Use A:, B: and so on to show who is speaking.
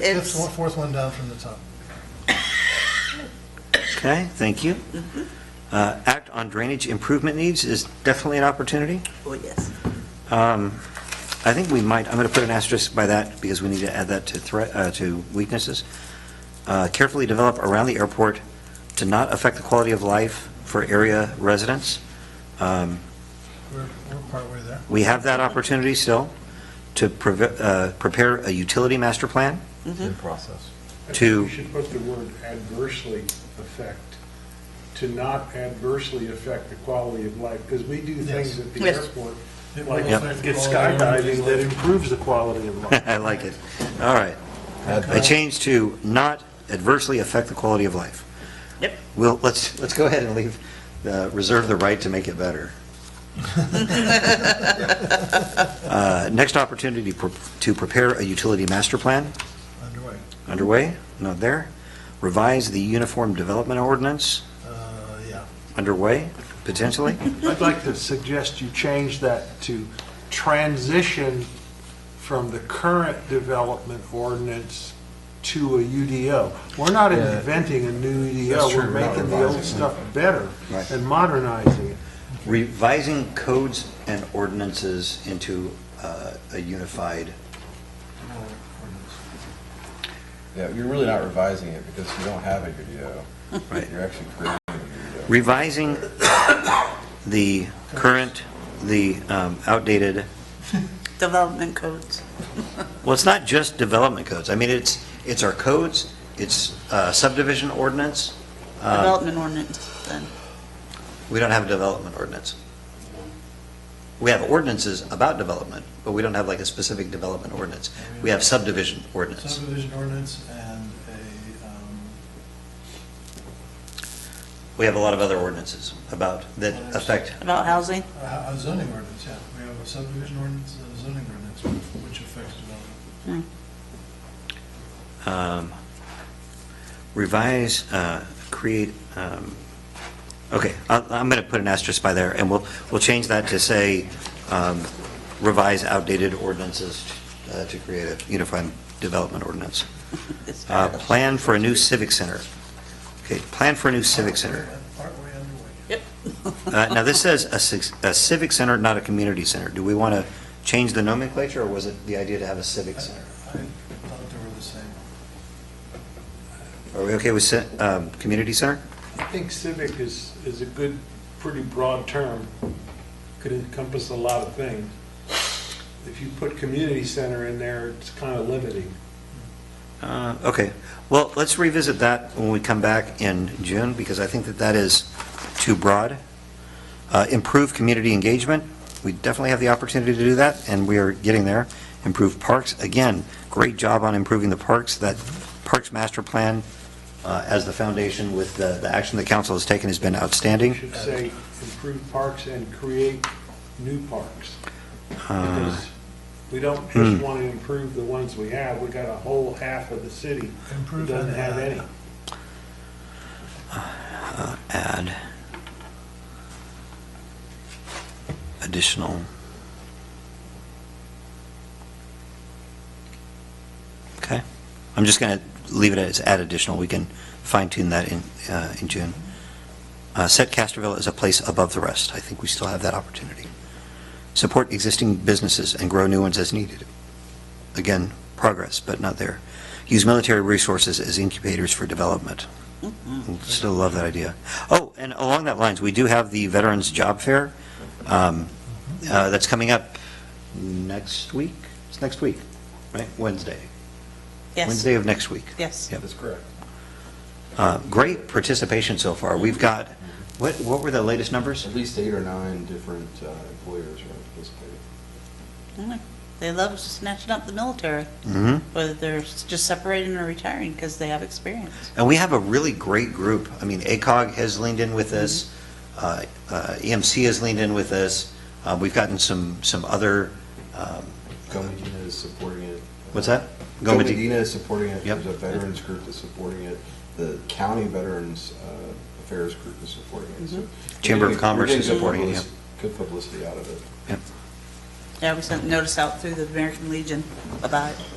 A: It's
B: Fifth one- Fourth one down from the top.
C: Okay, thank you. Uh, Act on drainage improvement needs is definitely an opportunity.
A: oh yes.
C: Um, I think we might, I'm going to put an asterisk by that because we need to add that to threat, uh, to weaknesses. Uh, Carefully develop around the airport to not affect the quality of life for area residents. Um,
B: We're, we're partway there.
C: We have that opportunity still to preve- uh, prepare a utility master plan.
D: in process.
E: I think
C: to-
E: We should put the word adversely affect, to not adversely affect the quality of life, because we do
B: Yes.
E: things at the
A: Yes.
E: airport,
B: It
E: like
B: will affect
E: get
B: the quality of
E: skydiving, that
B: life.
E: improves the quality of life.
C: I like it. All right. I changed to not adversely affect the quality of life.
A: Yep.
C: Well, let's, let's go ahead and leave, uh, reserve the right to make it better. Uh, Next opportunity pro- to prepare a utility master plan
B: Underway.
C: underway, not there. Revise the uniform development ordinance
B: Uh, yeah.
C: underway, potentially.
E: I'd like to suggest you change that to transition from the current development ordinance to a UDO. We're not
D: Yeah.
E: inventing a new
D: That's
E: UDO,
D: true,
E: we're
D: we're not
E: making the old
D: revising it.
E: stuff better
C: Right.
E: and modernizing it.
C: Revising codes and ordinances into uh, a unified,
D: Yeah, you're really not revising it because you don't have a UDO.
C: Right.
D: You're actually creating a UDO.
C: revising the current, the um, outdated
A: Development codes.
C: Well, it's not just development codes. I mean, it's, it's our codes, it's uh, subdivision ordinance. Uh,
A: Development ordinance then.
C: We don't have a development ordinance. We have ordinances about development, but we don't have like a specific development ordinance. We have subdivision ordinance.
B: Subdivision ordinance and a, um,
C: We have a lot of other ordinances about, that affect,
A: About housing.
B: a ho- a zoning ordinance, yeah. We have a subdivision ordinance and a zoning ordinance which affects development.
C: um, revise, uh, create, um, okay, I- I'm going to put an asterisk by there, and we'll, we'll change that to say um, revise outdated ordinances uh, to create a unified development ordinance.
A: It's
C: Uh,
A: part of-
C: Plan for a new civic center. Okay, plan for a new civic center.
B: Partway underway.
C: Uh, Now, this says a civ- a civic center, not a community center. Do we want to change the nomenclature, or was it the idea to have a civic
B: I
C: center?
B: I thought they were the same.
C: Are we okay with ci- um, community center?
E: I think civic is, is a good, pretty broad term, could encompass a lot of things. If you put community center in there, it's kind of limiting.
C: Uh, Okay, well, let's revisit that when we come back in June, because I think that that is too broad. Uh, Improve community engagement, we definitely have the opportunity to do that, and we are getting there. Improve parks, again, great job on improving the parks, that Parks Master Plan uh, as the foundation with the the action the council has taken has been
E: You
C: outstanding.
E: should say improve parks and create new parks. Because we don't just want to improve the ones we have, we got a whole half of the city that
B: Improve
E: doesn't
B: and
E: have
B: add.
E: any.
C: add additional okay i'm just going to leave it as add additional we can fine tune that in uh, in june uh, set casterville as a place above the rest i think we still have that opportunity support existing businesses and grow new ones as needed again progress but not there use military resources as incubators for development Mm. Still love that idea. Oh, and along that lines, we do have the Veterans Job Fair um, uh, that's coming up next week? It's next week, right? Wednesday?
A: Yes,
C: Wednesday of next week.
A: yes.
C: Yep.
D: That's correct.
C: Uh, Great participation so far. We've got, what, what were the latest numbers?
D: At least eight or nine different uh, employers are participating.
A: Mm. They love snatching up the military,
C: Mm-hmm.
A: whether they're s- just separating or retiring because they have experience.
C: And we have a really great group. I mean, ACOG has leaned in with us, uh, uh, EMC has leaned in with us, Uh, we've gotten some, some other, um,
D: Go Medina is supporting it.
C: what's that?
D: Go
C: Gomedi-
D: Medina is supporting it.
C: Yep.
D: There's a veterans group that's supporting it. The county veterans uh, affairs group is supporting it. So
C: Mm-hmm. Chamber of
D: we're
C: Commerce
D: getting
C: is
D: good
C: supporting it,
D: publici- Good publicity out of it.
A: Yeah, we sent notice out through the American Legion about it.